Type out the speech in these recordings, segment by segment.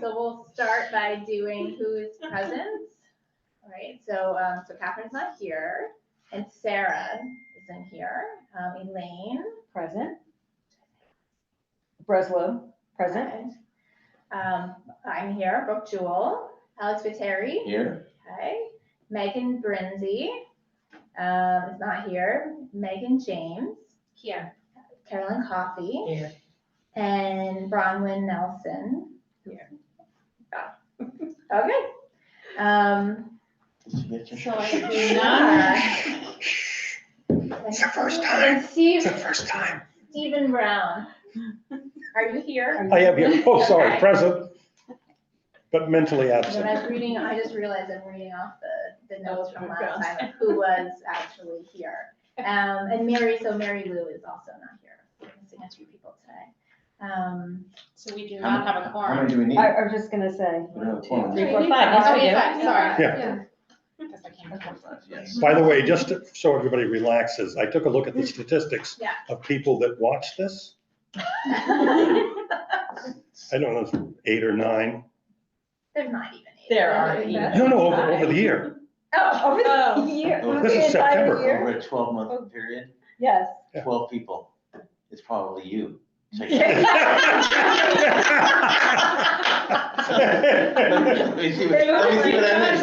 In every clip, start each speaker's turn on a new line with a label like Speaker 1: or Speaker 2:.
Speaker 1: So we'll start by doing who is present. All right, so, um, so Catherine's not here, and Sarah isn't here, um, Elaine.
Speaker 2: Present. Breslow, present.
Speaker 1: Um, I'm here, Brooke Jewel, Alex Viteri,
Speaker 3: Here,
Speaker 1: okay, Megan Brinzy, um, is not here, Megan James,
Speaker 4: Here.
Speaker 1: Carolyn Coffey,
Speaker 4: Here.
Speaker 1: and Bronwyn Nelson. Ah.
Speaker 4: Here.
Speaker 1: Okay, um,
Speaker 3: did you get your?
Speaker 4: So I do not,
Speaker 1: Yeah.
Speaker 5: It's your first time.
Speaker 1: And Steve,
Speaker 5: It's the first time.
Speaker 1: Stephen Brown, are you here?
Speaker 6: I am here, oh, sorry,
Speaker 1: Okay.
Speaker 6: present, but mentally
Speaker 1: When
Speaker 6: absent.
Speaker 1: I was reading, I just realized I'm reading off the, the notes from
Speaker 4: Oh,
Speaker 1: last
Speaker 4: gross.
Speaker 1: time, of who was actually here. Um, and Mary, so Mary Lou is also not here, We're missing a few people today. Um,
Speaker 4: so we do
Speaker 3: How
Speaker 4: not
Speaker 3: many-
Speaker 4: have a
Speaker 3: How
Speaker 4: quorum.
Speaker 3: many do we need?
Speaker 2: I, I was just gonna say.
Speaker 3: We don't have a quorum.
Speaker 2: Three,
Speaker 3: Yes,
Speaker 2: four, five, yes,
Speaker 1: Oh,
Speaker 2: we
Speaker 1: we
Speaker 2: do.
Speaker 1: have five, sorry.
Speaker 6: Yeah.
Speaker 4: Because I can't count.
Speaker 3: yes.
Speaker 6: By the way, just to- so everybody relaxes, I took a look at the statistics
Speaker 1: Yeah.
Speaker 6: of people that watch this. I don't know, it's eight or nine,
Speaker 1: There's not even eight.
Speaker 4: There are
Speaker 1: There's
Speaker 4: eight.
Speaker 1: not even-
Speaker 6: no, no, over, over the year.
Speaker 1: Oh,
Speaker 2: Over
Speaker 4: Oh.
Speaker 2: the year,
Speaker 3: This
Speaker 2: over
Speaker 3: is
Speaker 2: the entire
Speaker 6: September.
Speaker 2: year?
Speaker 3: Over a twelve month period,
Speaker 2: Yes.
Speaker 6: Yeah.
Speaker 3: twelve people, it's probably you. So- Let me see what let me see what I miss.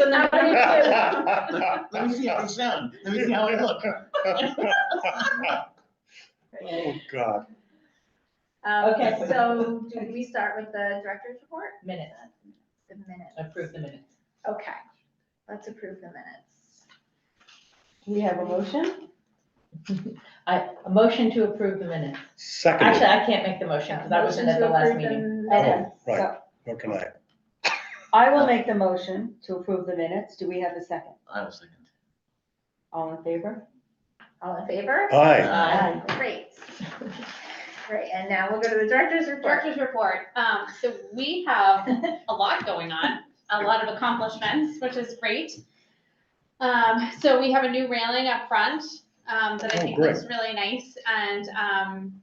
Speaker 3: Let me see how I sound, let me see how I look.
Speaker 6: Oh, God,
Speaker 1: Um,
Speaker 2: Okay.
Speaker 1: so do we start with the director's report? Minutes. The minutes.
Speaker 4: Approve the minutes.
Speaker 1: Okay, let's approve the minutes.
Speaker 2: Do we have a motion?
Speaker 7: I, a motion to approve the minutes. Actually,
Speaker 6: second,
Speaker 7: I can't make the motion because I wasn't at
Speaker 1: Motion
Speaker 7: the
Speaker 1: to
Speaker 7: last
Speaker 1: approve the
Speaker 7: meeting.
Speaker 1: minutes.
Speaker 2: Okay,
Speaker 6: right.
Speaker 2: so
Speaker 6: how can I?
Speaker 2: I will make the motion to approve the minutes. Do we have a second?
Speaker 3: I was thinking.
Speaker 2: All in favor?
Speaker 1: All in favor?
Speaker 6: Aye,
Speaker 2: Aye.
Speaker 1: Great. Great, and now we'll go to the director's report.
Speaker 4: Director's Uh, report, um, so we have a lot going on, a lot of accomplishments, which is great. Um, so we have a new railing up front, um, that I
Speaker 6: Oh,
Speaker 4: think
Speaker 6: great.
Speaker 4: looks really nice, and, um,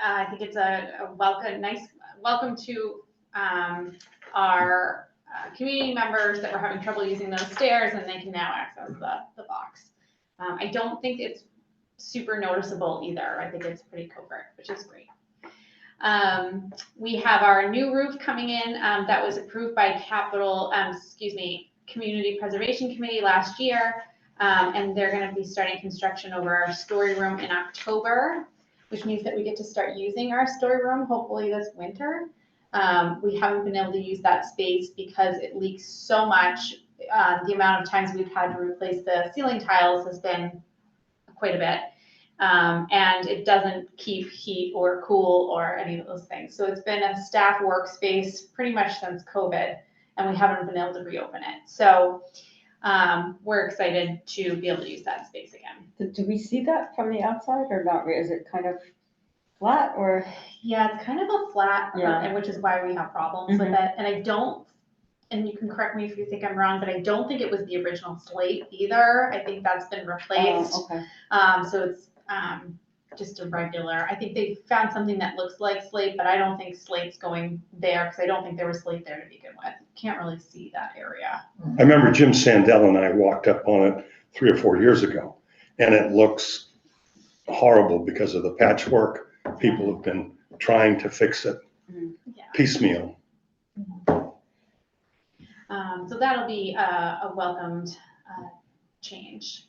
Speaker 4: uh, I think it's a, a welcome, nice, welcome to, um, our, uh, community members that were having trouble using those stairs, and they can now access the, the box. Um, I don't think it's super noticeable either, I think it's pretty covert, which is great. Um, we have our new roof coming in, um, that was approved by capital, um, excuse me, Community Preservation Committee last year. Um, and they're gonna be starting construction over our story room in October, which means that we get to start using our story room, hopefully this winter. Um, we haven't been able to use that space because it leaks so much. Uh, the amount of times we've had to replace the ceiling tiles has been quite a bit. Um, and it doesn't keep heat or cool or any of those things. So it's been a staff workspace pretty much since COVID, and we haven't been able to reopen it. So um, we're excited to be able to use that space again.
Speaker 2: Do- Do we see that from the outside or not? Or Is it kind of flat or? um,
Speaker 4: Yeah, it's kind of a flat, uh,
Speaker 2: Yeah. Mm-hmm.
Speaker 4: and which is why we have problems with it. And I don't, and you can correct me if you think I'm wrong, but I don't think it was the original slate either. I think that's been replaced.
Speaker 2: Oh, Okay.
Speaker 4: Um, so it's, um, just a regular, I think they found something that looks like slate, but I don't think slate's going there, because I don't think there was slate there to begin with. Can't really see that area.
Speaker 6: I remember Jim Sandell and I walked up on it three or four years ago, and it looks horrible because of the patchwork. People have been trying to fix it
Speaker 4: Yeah.
Speaker 6: piecemeal.
Speaker 4: Um, so that'll be a, a welcomed, uh, change.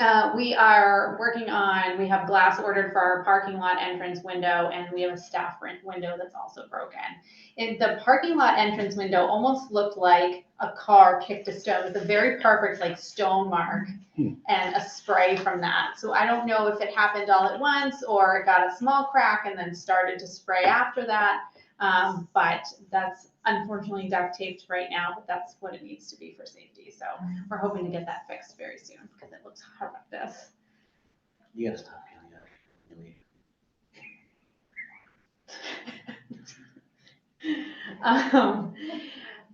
Speaker 4: Uh, we are working on, we have glass ordered for our parking lot entrance window and we have a staff rent window that's also broken. And the parking lot entrance window almost looked like a car kicked a stone. It was a very perfect like stone mark
Speaker 6: Hmm.
Speaker 4: and a spray from that. So I don't know if it happened all at once or it got a small crack and then started to spray after that. Um, but that's unfortunately duct taped right now, but that's what it needs to be for safety. So we're hoping to get that fixed very soon because it looks horrendous.
Speaker 3: You gotta stop, Julia. Really.
Speaker 4: Um,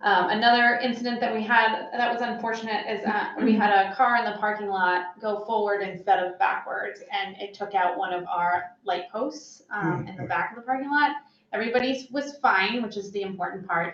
Speaker 4: um, another incident that we had that was unfortunate is uh, we had a car in the parking lot go forward instead of backwards, and it took out one of our light posts um, in the back of the parking lot. Everybody's was fine, which is the important part.